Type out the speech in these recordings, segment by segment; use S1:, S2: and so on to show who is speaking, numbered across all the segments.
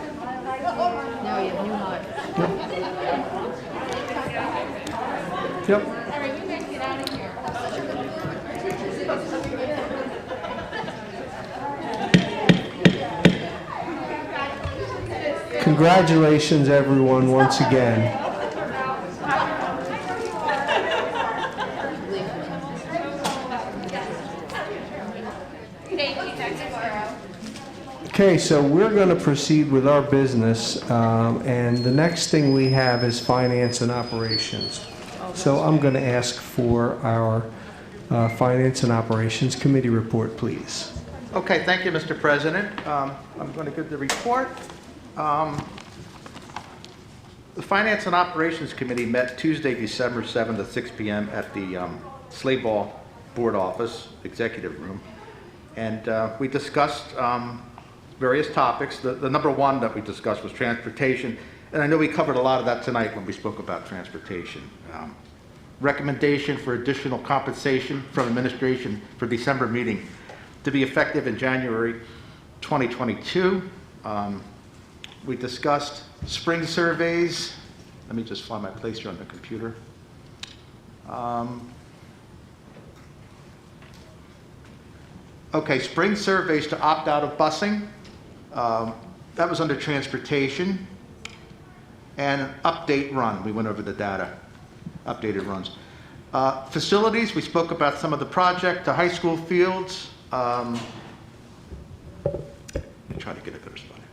S1: No, you have new heart.
S2: Yep. Congratulations, everyone, once again.
S3: Thank you, Dr. Morrow.
S2: Okay, so we're going to proceed with our business, um, and the next thing we have is finance and operations. So I'm going to ask for our uh, Finance and Operations Committee report, please.
S4: Okay, thank you, Mr. President. Um, I'm going to give the report. Um, The Finance and Operations Committee met Tuesday, December 7th at 6 PM at the um, Slade Ball Board Office Executive Room. And uh, we discussed um, various topics. The the number one that we discussed was transportation, and I know we covered a lot of that tonight when we spoke about transportation. Um, recommendation for additional compensation from administration for December meeting to be effective in January 2022. Um, We discussed spring surveys. Let me just find my place here on the computer. Um, Okay, spring surveys to opt out of busing. Um, That was under transportation and an update run. We went over the data, updated runs. Uh, Facilities, we spoke about some of the project, the high school fields. um, Let me try to get a better spot. here.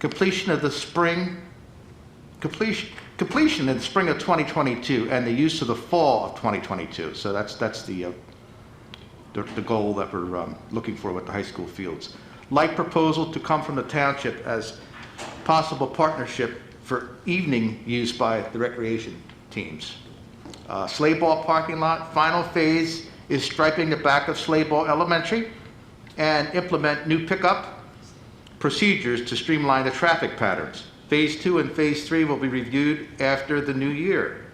S4: Completion of the spring, completion, completion in spring of 2022 and the use of the fall of 2022. So that's, that's the, uh, the the goal that we're um, looking for with the high school fields. Like proposal to come from the township as possible partnership for evening use by the recreation teams. Uh, Sleigh ball parking lot, final phase is striping the back of Sleigh Ball Elementary and implement new pickup procedures to streamline the traffic patterns. Phase two and phase three will be reviewed after the new year.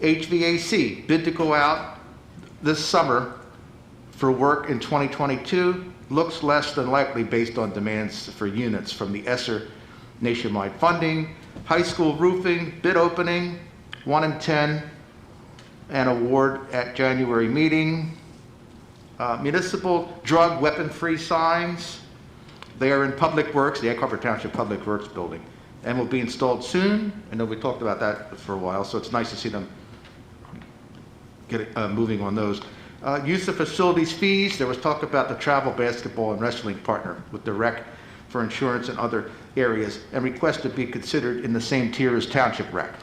S4: HVAC, bid to go out this summer for work in 2022 looks less than likely based on demands for units from the ESSER nationwide funding, high school roofing, bid opening, 1 in 10, and award at January meeting. Uh, Municipal drug weapon-free signs, they are in Public Works, the Egg Harbor Township Public Works Building, and will be installed soon. I know we talked about that for a while, so it's nice to see them get uh, moving on those. Uh, Use of facilities fees, there was talk about the travel basketball and wrestling partner with the rec for insurance and other areas, and request to be considered in the same tier as township rec.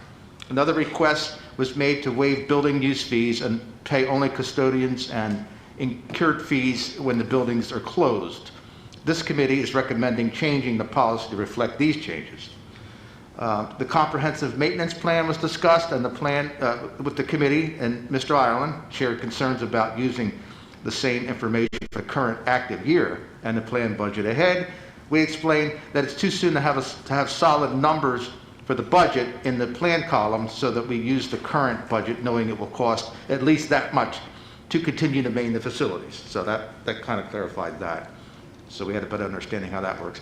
S4: Another request was made to waive building use fees and pay only custodians and incurred fees when the buildings are closed. This committee is recommending changing the policy to reflect these changes. Uh, The comprehensive maintenance plan was discussed, and the plan uh, with the committee, and Mr. Ireland shared concerns about using the same information for the current active year and the planned budget ahead. We explained that it's too soon to have, us- to have solid numbers for the budget in the plan column, so that we use the current budget, knowing it will cost at least that much to continue to maintain the facilities. So that, that kind of clarified that. So we had a better understanding how that works.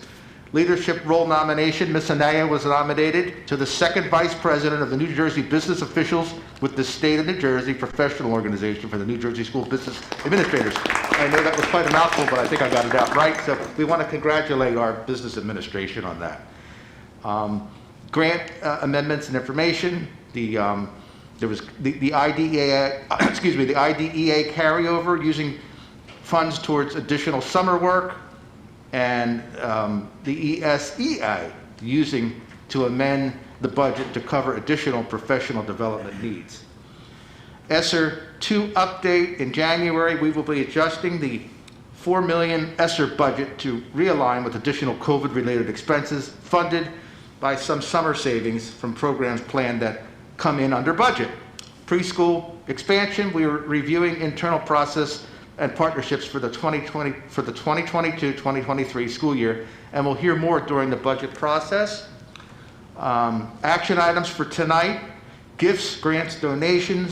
S4: Leadership role nomination, Ms. Anaya was nominated to the second vice president of the New Jersey Business Officials with the State of New Jersey Professional Organization for the New Jersey School Business Administrators. I know that was quite a mouthful, but I think I got it out right. So we want to congratulate our business administration on that. Um, Grant uh, amendments and information, the, um, there was, the the IDEA, excuse me, the IDEA carryover using funds towards additional summer work, and um, the ESEI using to amend the budget to cover additional professional development needs. ESSER 2 update in January, we will be adjusting the 4 million ESSER budget to realign with additional COVID-related expenses funded by some summer savings from programs planned that come in under budget. Preschool expansion, we are reviewing internal process and partnerships for the 2020, for the 2022-2023 school year, and we'll hear more during the budget process. Um, Action items for tonight, gifts, grants, donations,